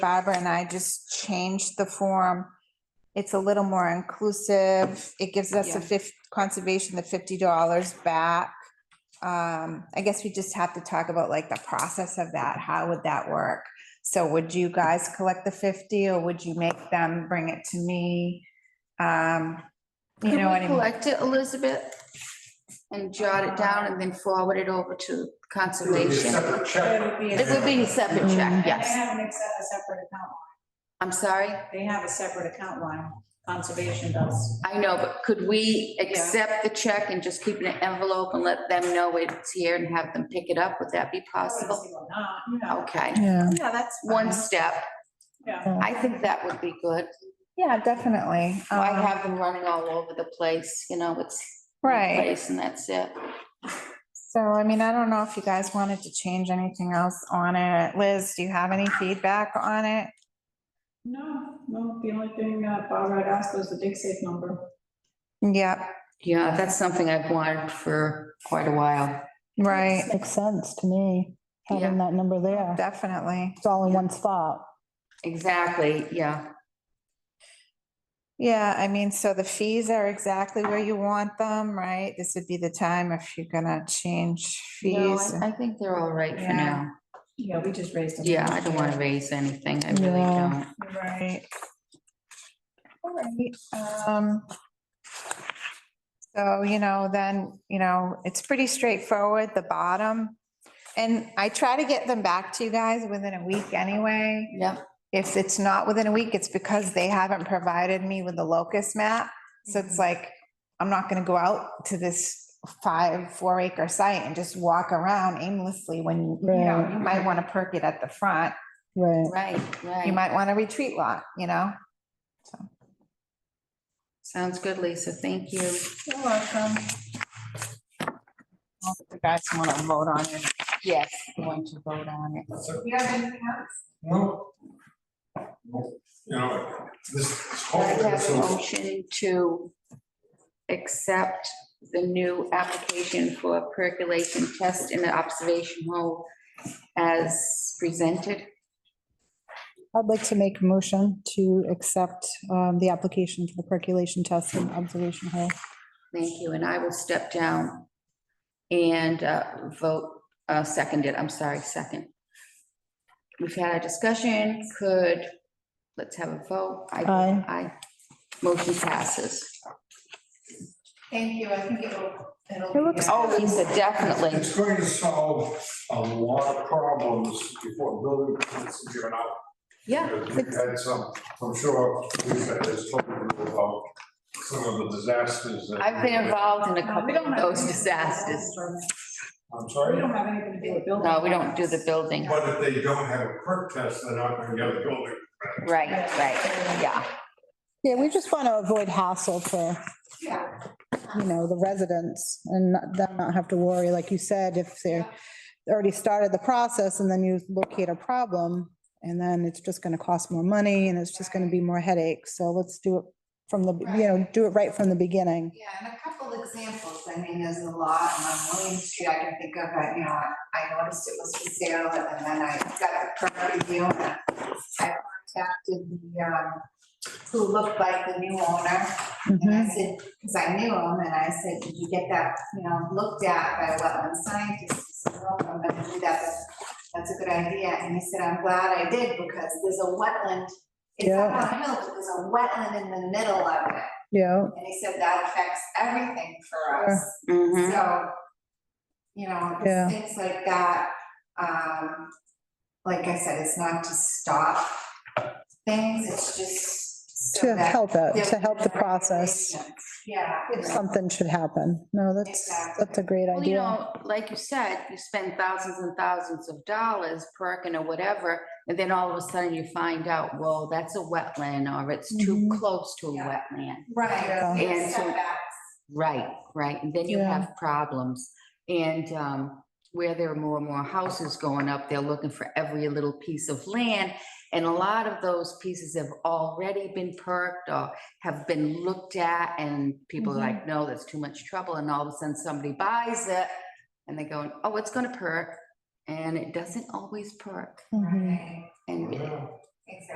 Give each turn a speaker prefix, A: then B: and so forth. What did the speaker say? A: Barbara and I just changed the form. It's a little more inclusive. It gives us a
B: Yeah.
A: fifth, conservation, the fifty dollars back. Um, I guess we just have to talk about like the process of that. How would that work? So would you guys collect the fifty or would you make them bring it to me? Um, you
B: Could
A: know
B: we
A: what I mean?
B: Collect it, Elizabeth, and jot it down and then forward it over to
C: It would be a
B: conservation.
C: separate check.
B: It would be a separate check,
D: And they
B: yes.
D: have an ex- a separate account.
B: I'm sorry,
D: They have a separate account line. Conservation does.
B: I know, but could we accept the check and just keep it in an envelope and let them know it's here and have them pick it up? Would that be possible?
D: Obviously, we're not, you know.
B: Okay,
A: Yeah,
D: Yeah, that's.
B: one
D: fine.
B: step.
D: Yeah.
B: I think that would be good.
A: yeah, definitely.
B: I
A: Um,
B: have them running all over the place, you know, it's. one
A: Right.
B: Place and that's it.
A: So, I mean, I don't know if you guys wanted to change anything else on it. Liz, do you have any feedback on it?
D: No, no, the only thing that Barbara had asked was the dig safe number.
A: Yep,
B: Yeah, that's something I've wanted for quite a while.
A: right,
E: Makes sense to me, having that number there.
A: definitely.
E: It's all in one spot.
B: Exactly, yeah.
A: Yeah, I mean, so the fees are exactly where you want them, right? This would be the time if you're gonna change
B: No,
A: fees.
B: I I think they're all right for
A: Yeah.
B: now.
D: Yeah, we just raised it.
B: Yeah, I don't want to raise anything. I really
E: Yeah.
B: don't.
A: Right. All right, um. So, you know, then, you know, it's pretty straightforward, the bottom. And I try to get them back to you guys within a week anyway.
B: Yep,
A: If it's not within a week, it's because they haven't provided me with the locust map. So it's like, I'm not gonna go out to this five, four acre site and just walk around aimlessly when, you know, you might wanna perk it at the front.
E: Right.
B: right,
A: You
B: right.
A: might want a retreat lot, you know?
B: Sounds good, Lisa. Thank you.
A: You're welcome. You guys wanna vote on it?
B: Yes, I want to vote on it.
C: So,
A: You have anything else?
C: well, well, You know, this is
B: I
C: hopefully,
B: have a
C: so
B: motion to accept the new application for a percolation test in the observation hole as presented.
E: I'd like to make a motion to accept um, the application for the percolation test and observation hole.
B: Thank you, and I will step down and uh, vote, uh, second it, I'm sorry, second. We've had a discussion, could, let's have a vote. I vote
E: Aye.
B: Aye. Motion passes.
A: Thank you, I think it'll, it'll.
E: It looks-
A: be-
B: Oh, Lisa, definitely.
C: it's going to solve a lot of problems before building permits are given out.
B: Yeah,
C: We've had some, I'm sure we've had this talking about some of the disasters. that-
B: I've been involved in a
D: No, Uh,
B: couple
D: we don't
B: of
D: have
B: those
D: anything to do with building
B: disasters.
D: permits.
C: I'm
D: We
C: sorry,
D: don't have anything to do with building.
B: No, we don't do
D: permits.
B: the building.
C: but if they don't have a perk test, they're not going to get a building.
B: Right, right, yeah.
E: Yeah, we just want to avoid hassle for, you know, the residents and not- them not have to worry, like you said, if they're already started the process and then you locate a problem and then it's just going to cost more money and it's just going to be more headaches. So let's do it from the, you know, do it right from the beginning.
A: Yeah, and a couple examples, I mean, there's a lot on William Street, I can think of, but, you know, I- I noticed it was for sale, and then I got a permit review, and I contacted the, um, who looked like the new owner, and I
E: Mhm.
A: said, because I knew him, and I said, did you get that, you know, looked at by wetland scientists? He said, "No, I'm gonna do that, that's, that's a good idea, and he said, I'm glad I did, because there's a wetland, it's up
E: Yeah.
A: on a hill, but there's a wetland in the middle of it.
E: Yeah,
A: And he said that affects everything for us.
B: Mhm.
A: So, you know, it's
E: Yeah.
A: things like that, um, like I said, it's not to stop things, it's just so
E: to
A: that
E: help
A: there
E: it, to help
A: is
E: the
A: a
E: process.
A: regulation. Yeah.
E: If something should happen. No, that's, that's a great
B: Well, you
E: idea.
B: know, like you said, you spend thousands and thousands of dollars perking or whatever, and then all of a sudden you find out, whoa, that's a wetland, or it's too
E: Mhm.
B: close to a
A: Yeah.
B: wetland.
A: Right.
E: Yeah.
A: there's
B: And so-
A: setbacks.
B: Right, right, and then you
E: Yeah.
B: have problems. And um, where there are more and more houses going up, they're looking for every little piece of land. And a lot of those pieces have already been perked or have been looked at, and people are like, no, that's too much trouble, and all of a sudden somebody buys it. And they go, oh, it's gonna perk, and it doesn't always perk,
E: Mhm.
A: Right.
B: and
C: Well,